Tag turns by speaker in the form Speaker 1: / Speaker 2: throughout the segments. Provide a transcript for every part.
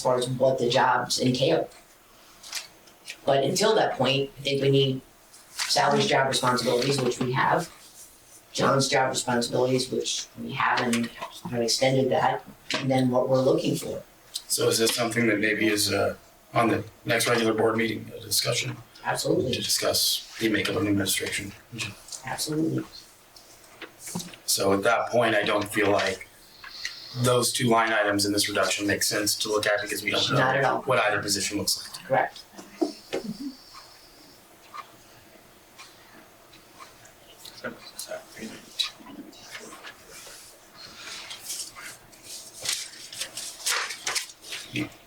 Speaker 1: as far as what the jobs entail. But until that point, I think we need Sally's job responsibilities, which we have. John's job responsibilities, which we haven't, have extended that, and then what we're looking for.
Speaker 2: So is this something that maybe is uh, on the next regular board meeting, a discussion to
Speaker 1: Absolutely,
Speaker 2: discuss the makeup of the administration?
Speaker 1: absolutely.
Speaker 2: So at that point, I don't feel like those two line items in this reduction make sense to look at because we don't
Speaker 1: Not at
Speaker 2: know
Speaker 1: all.
Speaker 2: what either position looks like.
Speaker 1: Correct.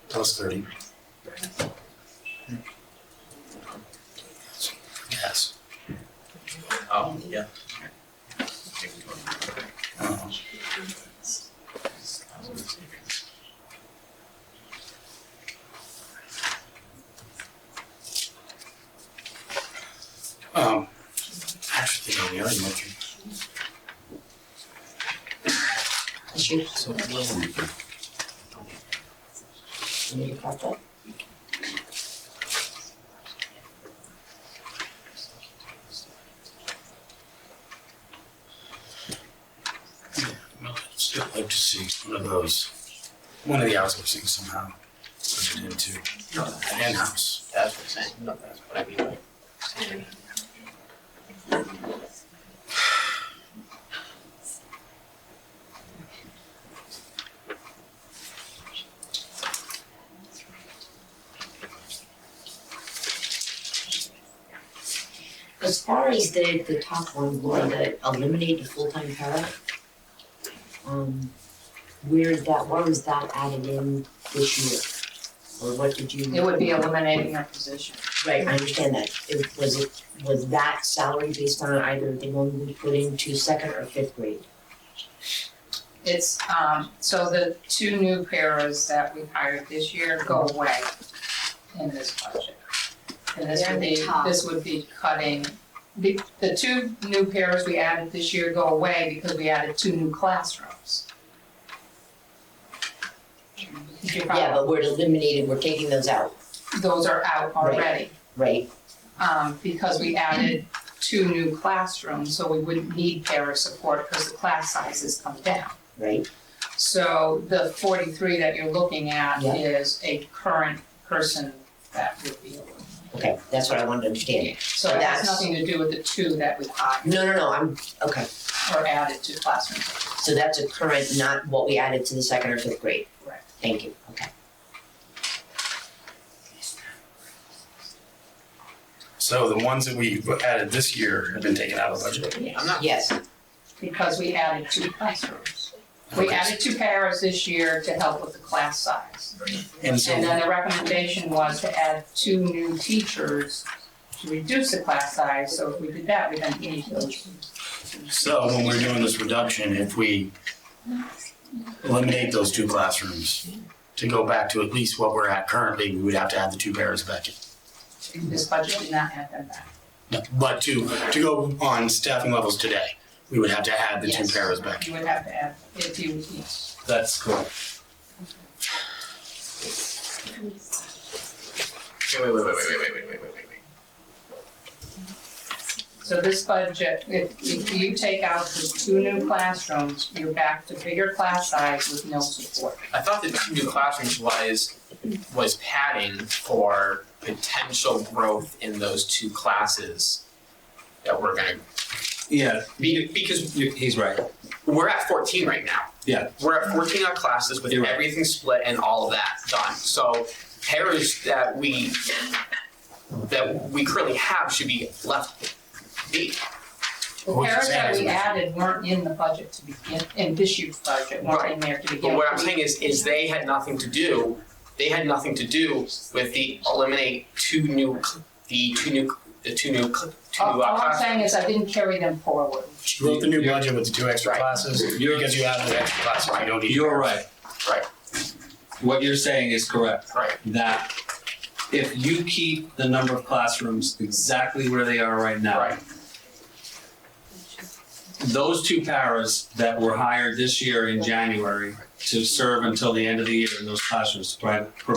Speaker 2: Plus thirty. Yes.
Speaker 3: Oh, yeah.
Speaker 2: Uh-huh. Um, I actually think I already went through
Speaker 1: Is she- You need to cut that?
Speaker 2: Well, I'd still like to see one of those, one of the outsourcing somehow, put it into
Speaker 3: No, that's
Speaker 2: an in-house.
Speaker 3: that's what I'm saying. No, that's what I mean. by-
Speaker 1: As far as the, the top one, Laura, the eliminate the full-time para, um, where that, why was that added in this year? Or what did you?
Speaker 4: It would be eliminating that position.
Speaker 1: Right, I understand that. It, was it, was that salary based on either the one we put into second or fifth grade?
Speaker 4: It's, um, so the two new paras that we hired this year go away in this budget. And this
Speaker 5: They're
Speaker 4: would
Speaker 5: in the
Speaker 4: be,
Speaker 5: top.
Speaker 4: this would be cutting, the, the two new paras we added this year go away because we added two new classrooms. Did you
Speaker 1: Yeah,
Speaker 4: follow?
Speaker 1: but we're eliminating, we're taking those out,
Speaker 4: Those are out
Speaker 1: Right.
Speaker 4: already.
Speaker 1: right?
Speaker 4: um, because we added two new classrooms, so we wouldn't need para support because the class sizes come down.
Speaker 1: Right?
Speaker 4: So the forty-three that you're looking at
Speaker 1: Yeah.
Speaker 4: is a current person that would be awarded.
Speaker 1: Okay, that's what I wanted to understand.
Speaker 4: So it has
Speaker 1: That's-
Speaker 4: nothing to do with the two that we hired
Speaker 1: No, no, no, I'm, okay.
Speaker 4: or added to classrooms.
Speaker 1: So that's a current, not what we added to the second or fifth grade?
Speaker 4: Correct.
Speaker 1: Thank you, okay.
Speaker 2: So the ones that we added this year have been taken out of the budget.
Speaker 3: I'm not,
Speaker 1: Yes,
Speaker 4: Because we added two classrooms. We added two paras this year to help with the class size.
Speaker 2: And so,
Speaker 4: And uh, then the recommendation was to add two new teachers to reduce the class size, so if we did that, we didn't need those.
Speaker 2: so when we're doing this reduction, if we eliminate those two classrooms to go back to at least what we're at currently, we would have to add the two pairs back in.
Speaker 4: This budget did not add them back.
Speaker 2: No, But to, to go on staffing levels today, we would have to add the two
Speaker 4: Yes.
Speaker 2: pairs back. in.
Speaker 4: You would have to add, if you, yes.
Speaker 2: That's cool.
Speaker 3: wait, wait, wait, wait, wait, wait, wait, wait, wait, wait.
Speaker 4: So this budget, if, if you take out the two new classrooms, you're back to bigger class size with no support.
Speaker 3: I thought the two new classrooms was, was padding for potential growth in those two classes that we're gonna,
Speaker 6: Yeah,
Speaker 3: be- because
Speaker 6: you- he's right.
Speaker 3: we're at fourteen right now.
Speaker 6: Yeah.
Speaker 3: We're at fourteen on classes with
Speaker 6: You're right.
Speaker 3: everything split and all of that done. So pairs that we that we currently have should be left be.
Speaker 4: The
Speaker 2: What you're
Speaker 4: paras
Speaker 2: saying
Speaker 4: that
Speaker 2: is-
Speaker 4: we added weren't in the budget to begin, in this year's budget, weren't in there to begin.
Speaker 3: But what I'm
Speaker 4: with.
Speaker 3: saying is is they had nothing to do they had nothing to do with the eliminate two new cl- the two new the two new cl- two
Speaker 4: All,
Speaker 3: new
Speaker 4: all
Speaker 3: uh,
Speaker 4: I'm saying
Speaker 3: classrooms.
Speaker 4: is I didn't carry them forward.
Speaker 2: She wrote the new
Speaker 6: You're-
Speaker 2: budget with the two extra
Speaker 3: Right.
Speaker 2: classes,
Speaker 6: You're-
Speaker 2: because you added the extra classes, you don't need.
Speaker 6: You're right.
Speaker 3: Right.
Speaker 6: What you're saying is correct.
Speaker 3: Right.
Speaker 6: That if you keep the number of classrooms exactly where they are right now,
Speaker 3: Right.
Speaker 6: those two paras that were hired this year in January to serve until the end of the year in those classrooms, provide,